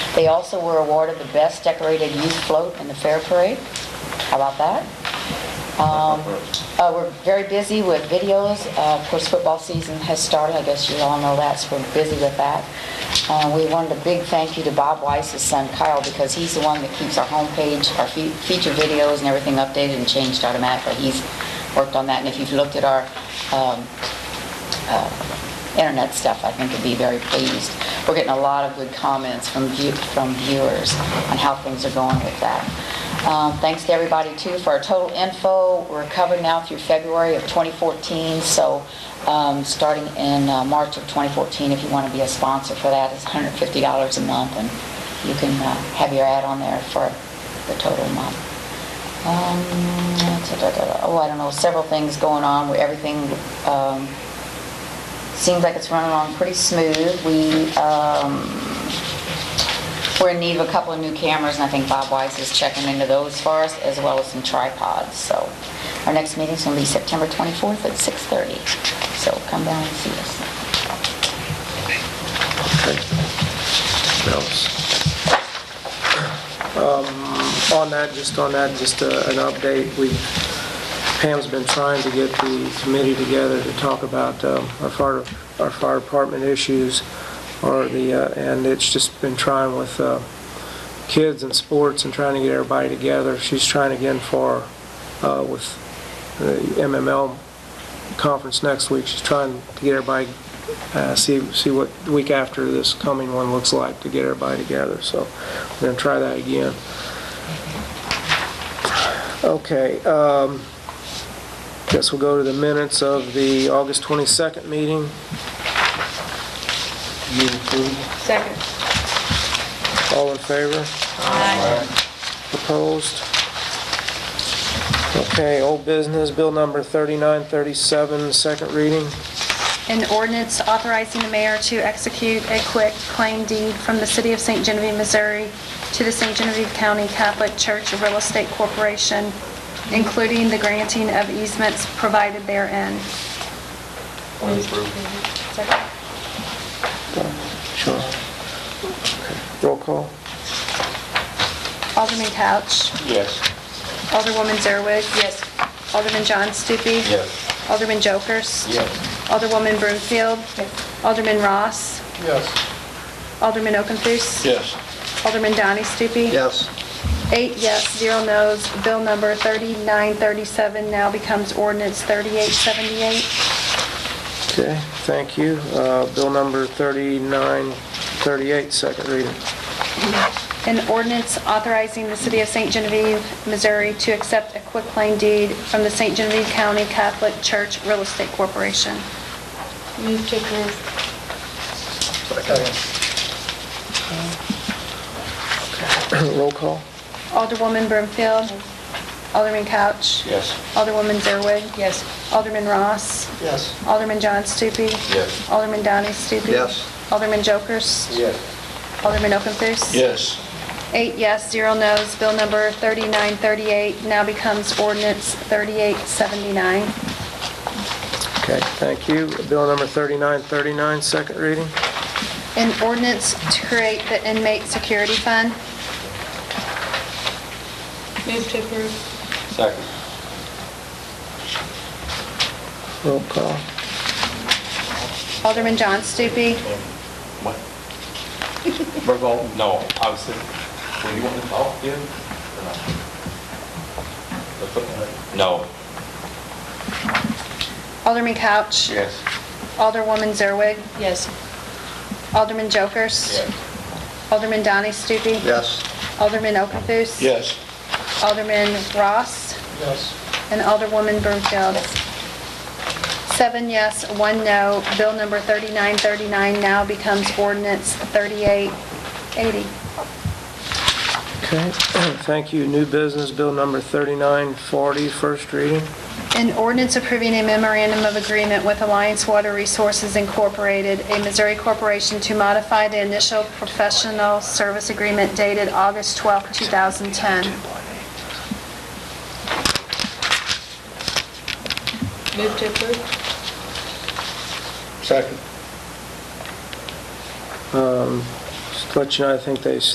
They also were awarded the Best Decorated Youth Float in the Fair Parade. How about that? Um, uh, We're very busy with videos. Uh, Of course, football season has started, I guess you all know that, so we're busy with that. Uh, We wanted a big thank you to Bob Weiss's son Kyle, because he's the one that keeps our homepage, our fe- feature videos and everything updated and changed automatically. He's worked on that, and if you've looked at our um, internet stuff, I think would be very pleased. We're getting a lot of good comments from view- from viewers on how things are going with that. Um, Thanks to everybody, too, for our total info. We're covered now through February of 2014, so um, starting in uh, March of 2014, if you want to be a sponsor for that, it's $150 a month, and you can uh, have your ad on there for the total month. Um, da-da-da-da. Oh, I don't know, several things going on, where everything um, seems like it's running along pretty smooth. We, um, we're in need of a couple of new cameras, and I think Bob Wise is checking into those for us, as well as some tripods, so. Our next meeting's gonna be September 24th at 6:30, so come down and see us. Okay. What else? Um, On that, just on that, just uh, an update, we, Pam's been trying to get the committee together to talk about um, our fire, our fire department issues, or the, uh, and it's just been trying with uh, kids and sports and trying to get everybody together. She's trying again for, uh, with the MML conference next week, she's trying to get everybody, uh, see, see what the week after this coming one looks like, to get everybody together, so we're gonna try that again. Okay, um, guess we'll go to the minutes of the August 22nd meeting. Second. All in favor? Opposed? Okay, old business, bill number 3937, second reading. An ordinance authorizing the mayor to execute a quick claim deed from the city of St. Genevieve, Missouri to the St. Genevieve County Catholic Church Real Estate Corporation, including the granting of easements provided therein. Sure. Roll call? Alderman Couch. Yes. Alderwoman Zerwig. Yes. Alderman John Stupi. Yes. Alderman Jokers. Yes. Alderwoman Broomfield. Alderman Ross. Yes. Alderman Okenthus. Yes. Alderman Donnie Stupi. Yes. Eight yes, zero no's. Bill number 3937 now becomes ordinance 3878. Okay, thank you. Uh, Bill number 3938, second reading. An ordinance authorizing the city of St. Genevieve, Missouri to accept a quitclaim deed from the St. Genevieve County Catholic Church Real Estate Corporation. Move to approve. Roll call? Alderwoman Broomfield. Alderman Couch. Yes. Alderwoman Zerwig. Yes. Alderman Ross. Yes. Alderman John Stupi. Yes. Alderman Donnie Stupi. Yes. Alderman Jokers. Alderman Okenthus. Yes. Eight yes, zero no's. Bill number 3938 now becomes ordinance 3879. Okay, thank you. Bill number 3939, second reading. An ordinance to create the inmate security fund. Move to approve. Second. Roll call. Alderman John Stupi. What? We're going, no, I was thinking, do you want to talk again? or not? Let's look at it. No. Alderman Couch. Yes. Alderwoman Zerwig. Yes. Alderman Jokers. Alderman Donnie Stupi. Yes. Alderman Okenthus. Yes. Alderman Ross. Yes. And Alderwoman Broomfield. Seven yes, one no. Bill number 3939 now becomes ordinance 3880. Okay, thank you. New business, bill number 3940, first reading. An ordinance approving a memorandum of agreement with Alliance Water Resources Incorporated, a Missouri corporation to modify the initial professional service agreement dated August 12, 2010. Move to approve. Second. Just to let you know, I think they